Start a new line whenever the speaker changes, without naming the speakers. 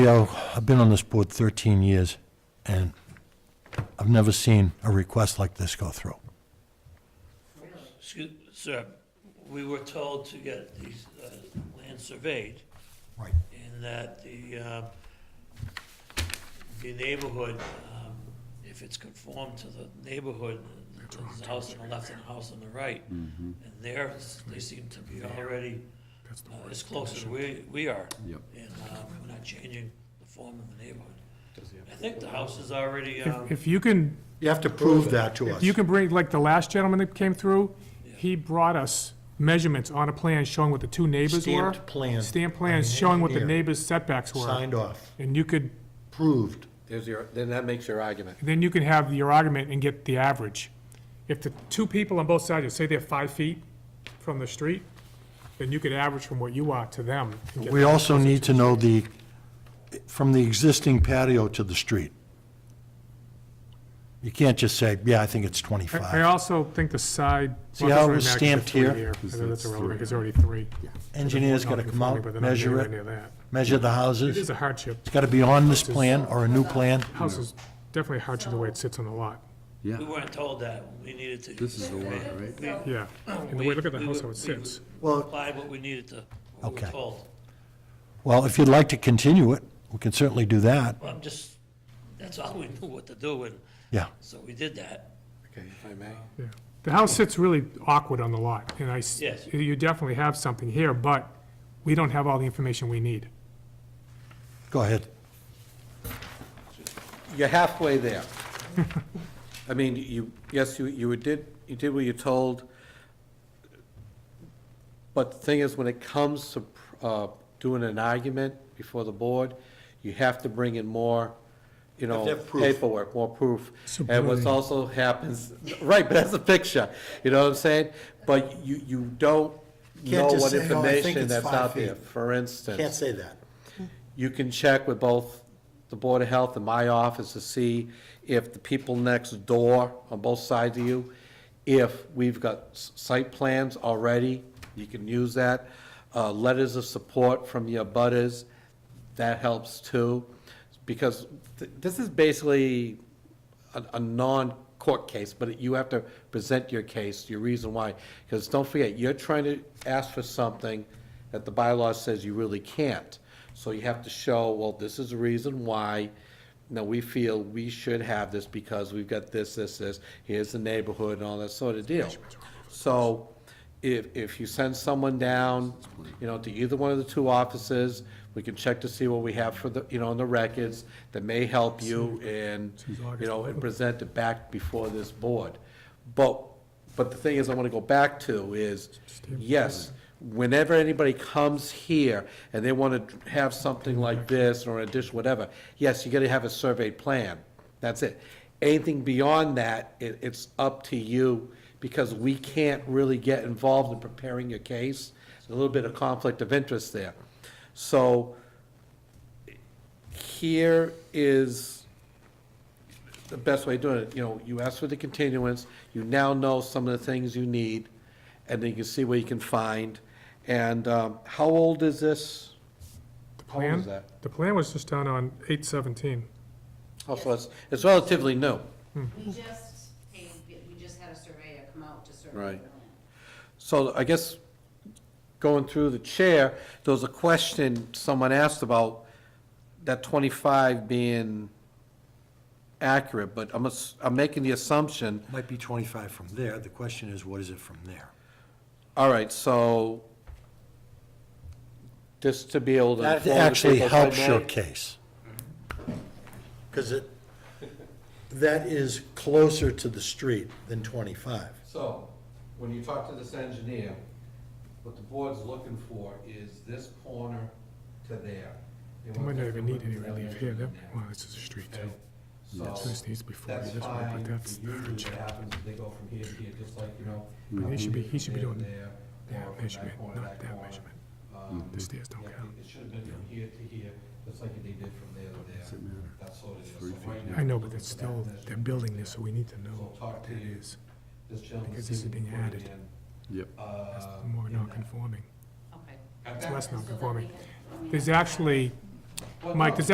Yeah, I've been on this board 13 years, and I've never seen a request like this go through.
Excuse, sir, we were told to get these, uh, land surveyed
Right.
in that the, uh, the neighborhood, um, if it's conformed to the neighborhood, there's a house on the left and a house on the right.
Mm-hmm.
And there, they seem to be already uh, as close as we, we are.
Yep.
And, um, we're not changing the form of the neighborhood. I think the house is already, um,
If you can,
You have to prove that to us.
you can bring, like the last gentleman that came through, he brought us measurements on a plan showing what the two neighbors were.
Stamped plan.
Stamped plans showing what the
Engineer.
neighbor's setbacks were.
Signed off,
And you could,
proved.
There's your, then that makes your argument.
then you can have your argument and get the average. If the two people on both sides, say they're five feet from the street, then you could average from what you are to them. and get-
We also need to know the, from the existing patio to the street. You can't just say, yeah, I think it's
I I
25.
also think the side.
See
well,
how it
it
was
doesn't really matter 'cause
stamped
they're
here?
three I think that's irrelevant, because already three.
Engineer's got to come
Non-conforming, but they're
out,
not
measure
anywhere near
it,
that.
measure the
It is
houses.
a hardship.
It's got to be on this plan or a new plan.
House is definitely hardship the way it sits on the lot,
we
Yeah,
weren't told that. We needed to.
this is the one, right?
yeah. And the way, look at the house, how it sits.
Well.
Well-
Applied what we needed to, what we were
Okay.
told.
Well, if you'd like to continue it, we can certainly do that.
Well, I'm just, that's all we knew what to do, and
Yeah.
so we did that.
Okay, if I may.
Yeah. The house sits really awkward on the lot, and I, s-
Yes.
you definitely have something here, but we don't have all the information we need.
Go ahead.
You're halfway there. I mean, you, yes, you, you did, you did what you're told. But the thing is, when it comes to, uh, doing an argument before the board, you have to bring in more, you know,
have proof.
paperwork, more proof. And what's also happens, right, but that's a picture, you know what I'm saying? But you, you don't
You
know
can't just
what
say, "Oh, I think
information
it's
that's
five
out there,
feet."
for instance
Can't say that.
you can check with both the Board of Health and my office to see if the people next door on both sides of you, if we've got s- site plans already, you can use that. Uh, letters of support from your butters, that helps too. Because th- this is basically a, a non-court case, but you have to present your case, your reason why. Because don't forget, you're trying to ask for something that the bylaw says you really can't. So you have to show, well, this is the reason why, now, we feel we should have this because we've got this, this, this, here's the neighborhood and all that sort of deal. So if, if you send someone down, you know, to either one of the two offices, we can check to see what we have for the, you know, on the records that may help you and, you know, and present it back before this board. But, but the thing is, I want to go back to is, yes, whenever anybody comes here and they want to have something like this or an addition, whatever, yes, you got to have a surveyed plan. That's it. Anything beyond that, it, it's up to you because we can't really get involved in preparing your case. A little bit of conflict of interest there. So here is the best way of doing it, you know, you ask for the continuance, you now know some of the things you need, and then you can see what you can find. And, um, how old is this?
The
How old is
plan,
that?
the plan was just done on eight seventeen.
Oh, so it's, it's relatively new.
We just, paid- we just had a surveyor come out to survey. the
Right.
land.
So I guess, going through the chair, there was a question someone asked about that twenty-five being accurate, but I'm, ass- I'm making the assumption
Might be 25 from there. The question is, what is it from there?
All right, so, just to be able to.
That
inform the
actually
people, if I
helps your
may,
case.
Because it, that is closer to the street than 25.
So, when you talk to this engineer, what the board's looking for is this corner to there. They
They
want
might not
that
even
to
need any
look
relief
like
here,
that.
that, wow, this is a street too.
So,
So this needs to be 40,
that's
that's why I put
fine,
that's the
usually what
average.
happens is they go from here to here, just like, you know.
He should be- he
from
should be
there to
doing
there,
that
or from
measurement,
corner to
not that
corner.
measurement. Mm.
Um,
The stairs don't
yeah,
count.
It should have been from here to here, just like they did from there to there. That's sort of. it is. So right now,
I know, but
we're
it's
looking
still,
at that
they're
measurement
building
there.
this, so we need to know
So
what
talk to
that
you.
is.
This gentleman
because this is
seemed to
being
put it
added.
in,
That's
uh,
more
in that-
non-conforming.
Okay.
It's less
So that we
non-conforming.
had- we
There's
had-
actually,
Well,
Mike,
no,
there's